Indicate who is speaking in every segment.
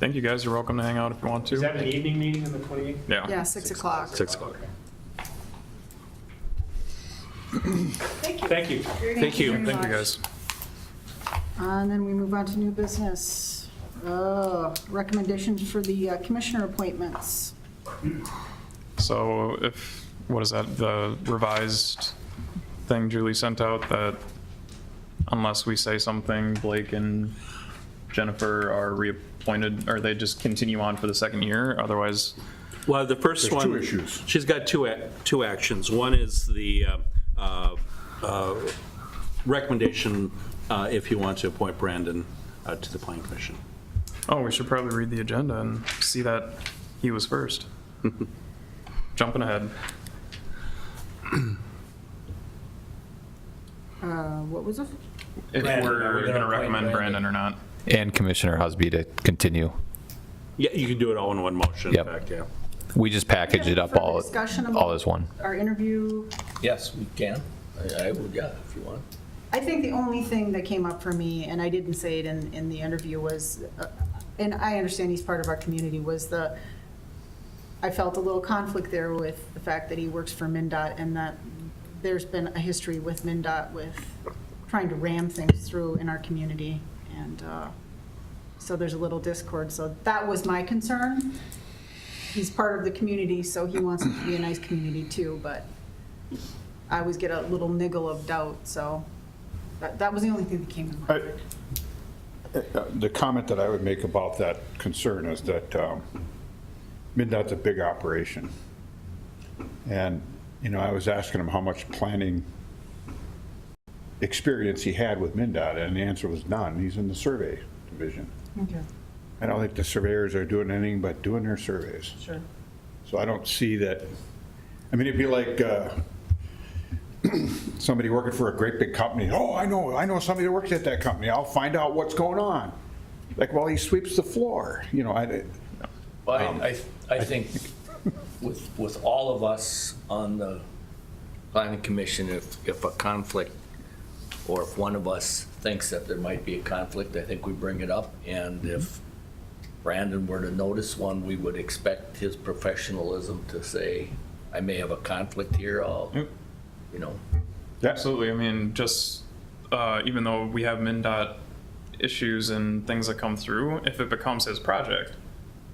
Speaker 1: think you guys are welcome to hang out if you want
Speaker 2: Is that
Speaker 1: to.
Speaker 2: an evening meeting on the 28th?
Speaker 1: Yeah.
Speaker 3: Yeah, 6 o'clock.
Speaker 4: Six o'clock.
Speaker 2: Thank you.
Speaker 3: Thank
Speaker 4: you.
Speaker 3: very
Speaker 1: Thank you,
Speaker 3: much.
Speaker 1: guys.
Speaker 3: And then we move on to new business. Uh, Recommendations for the uh, commissioner appointments.
Speaker 1: So if, what is that, the revised thing Julie sent out that unless we say something, Blake and Jennifer are reappointed, or they just continue on for the second year, otherwise,
Speaker 4: Well, the first
Speaker 5: There's
Speaker 4: one.
Speaker 5: two issues.
Speaker 4: She's got two, ac- two actions. One is the uh, uh, uh, recommendation, uh, if you want to appoint Brandon uh, to the planning commission.
Speaker 1: oh, we should probably read the agenda and see that he was first. Jumping ahead.
Speaker 3: Uh, What was it?
Speaker 1: If
Speaker 2: Brandon, are we
Speaker 1: we're
Speaker 2: gonna
Speaker 1: gonna
Speaker 2: appoint
Speaker 1: recommend
Speaker 2: Brandon?
Speaker 1: Brandon or not.
Speaker 6: And Commissioner Husby to continue.
Speaker 4: Yeah, you can do it all in one motion, in
Speaker 6: Yep.
Speaker 4: fact, yeah.
Speaker 6: We just package it up all,
Speaker 3: Further discussion about
Speaker 6: all as one.
Speaker 3: Our interview.
Speaker 7: Yes, we can. I I would, yeah, if you want.
Speaker 3: I think the only thing that came up for me, and I didn't say it in, in the interview, was, uh, and I understand he's part of our community, was the, I felt a little conflict there with the fact that he works for MinDOT and that there's been a history with MinDOT with trying to ram things through in our community. And uh, so there's a little discord. So that was my concern. He's part of the community, so he wants it to be a nice community too, but I always get a little niggle of doubt, so that, that was the only thing that came to mind.
Speaker 5: I- uh, The comment that I would make about that concern is that um, Midnight's a big operation. And, you know, I was asking him how much planning experience he had with MinDOT, and the answer was none. He's in the survey division.
Speaker 3: Okay,
Speaker 5: I don't think the surveyors are doing anything but doing their surveys.
Speaker 3: sure.
Speaker 5: So I don't see that, I mean, it'd be like uh, somebody working for a great big company, oh, I know, I know somebody that works at that company, I'll find out what's going on. Like, well, he sweeps the floor, you know, I,
Speaker 7: But I, I I think with, with all of us on the planning commission, if, if a conflict, or if one of us thinks that there might be a conflict, I think we bring it up. And if Brandon were to notice one, we would expect his professionalism to say, I may have a conflict here, I'll,
Speaker 1: Yep.
Speaker 7: you know.
Speaker 1: Absolutely. I mean, just uh, even though we have MinDOT issues and things that come through, if it becomes his project,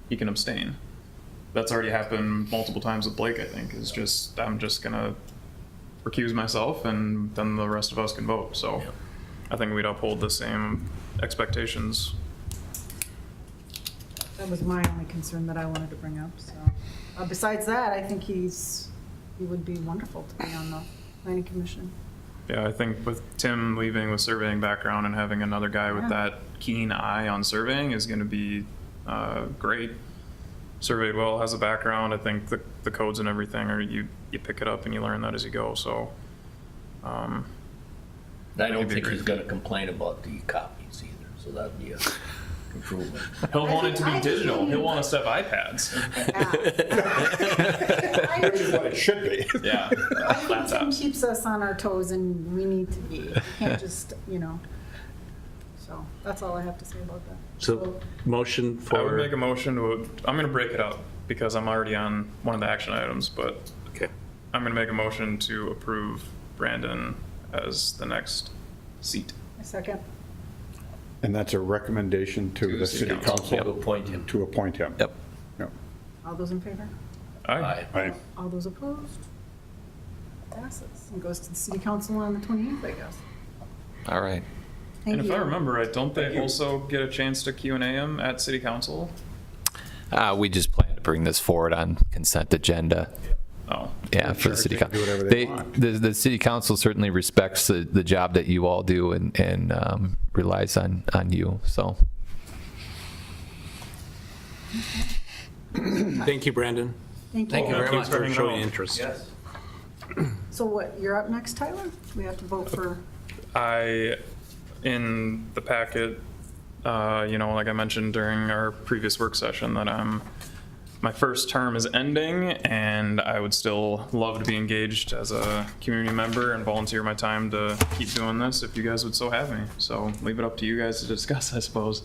Speaker 1: he can abstain. That's already happened multiple times with Blake, I think. It's just, I'm just going to recuse myself and then the rest of us can vote. So
Speaker 7: Yeah.
Speaker 1: I think we'd uphold the same expectations.
Speaker 3: That was my only concern that I wanted to bring up, so. Uh, Besides that, I think he's, he would be wonderful to be on the planning commission.
Speaker 1: Yeah, I think with Tim leaving with surveying background and having another guy with
Speaker 3: Yeah.
Speaker 1: that keen eye on surveying is going to be uh, great. Surveyed well, has a background. I think the, the codes and everything are you you pick it up and you learn that as you go. So, um,
Speaker 7: I don't
Speaker 1: That'd be
Speaker 7: think he's
Speaker 1: great.
Speaker 7: gonna complain about the copies either, so that'd be a improvement.
Speaker 1: he'll
Speaker 3: I
Speaker 1: want
Speaker 3: think-
Speaker 1: it to
Speaker 3: I
Speaker 1: be
Speaker 3: think
Speaker 1: digital.
Speaker 3: he-
Speaker 1: He'll want us to have iPads.
Speaker 5: which is what it should be.
Speaker 1: yeah,
Speaker 3: It
Speaker 1: laptops.
Speaker 3: keeps us on our toes and we need to be, we can't just, you know. So that's all I have to say about that.
Speaker 4: So, motion for.
Speaker 1: I would make a motion to. I'm going to break it up because I'm already on one of the action items, but
Speaker 4: Okay.
Speaker 1: I'm going to make a motion to approve Brandon as the next seat.
Speaker 3: A second.
Speaker 5: And that's a recommendation to the city council
Speaker 7: To appoint him.
Speaker 5: to appoint him.
Speaker 6: Yep.
Speaker 5: Yep.
Speaker 3: All those in favor?
Speaker 7: Aye.
Speaker 5: I-
Speaker 3: All those opposed? Passes and goes to the city council on the 28th, I guess.
Speaker 6: All right.
Speaker 3: Thank
Speaker 1: And if I
Speaker 3: you.
Speaker 1: remember right, don't they also get a chance to Q and A him at city council?
Speaker 6: Uh, we just plan to bring this forward on consent agenda.
Speaker 1: Oh,
Speaker 6: Yeah, for the city
Speaker 5: They can do whatever
Speaker 6: council.
Speaker 5: they
Speaker 6: They,
Speaker 5: want.
Speaker 6: the, the city council certainly respects the, the job that you all do and, and, um, relies on, on you, so.
Speaker 4: Thank you, Brandon.
Speaker 3: Thank you.
Speaker 7: Thank you very
Speaker 4: Thanks
Speaker 7: much.
Speaker 4: for
Speaker 1: much.
Speaker 4: showing interest.
Speaker 7: Yes.
Speaker 3: So what, you're up next, Tyler? We have to vote for,
Speaker 1: I, in the packet, uh, you know, like I mentioned during our previous work session, that I'm, my first term is ending, and I would still love to be engaged as a community member and volunteer my time to keep doing this if you guys would so have me. So leave it up to you guys to discuss, I suppose.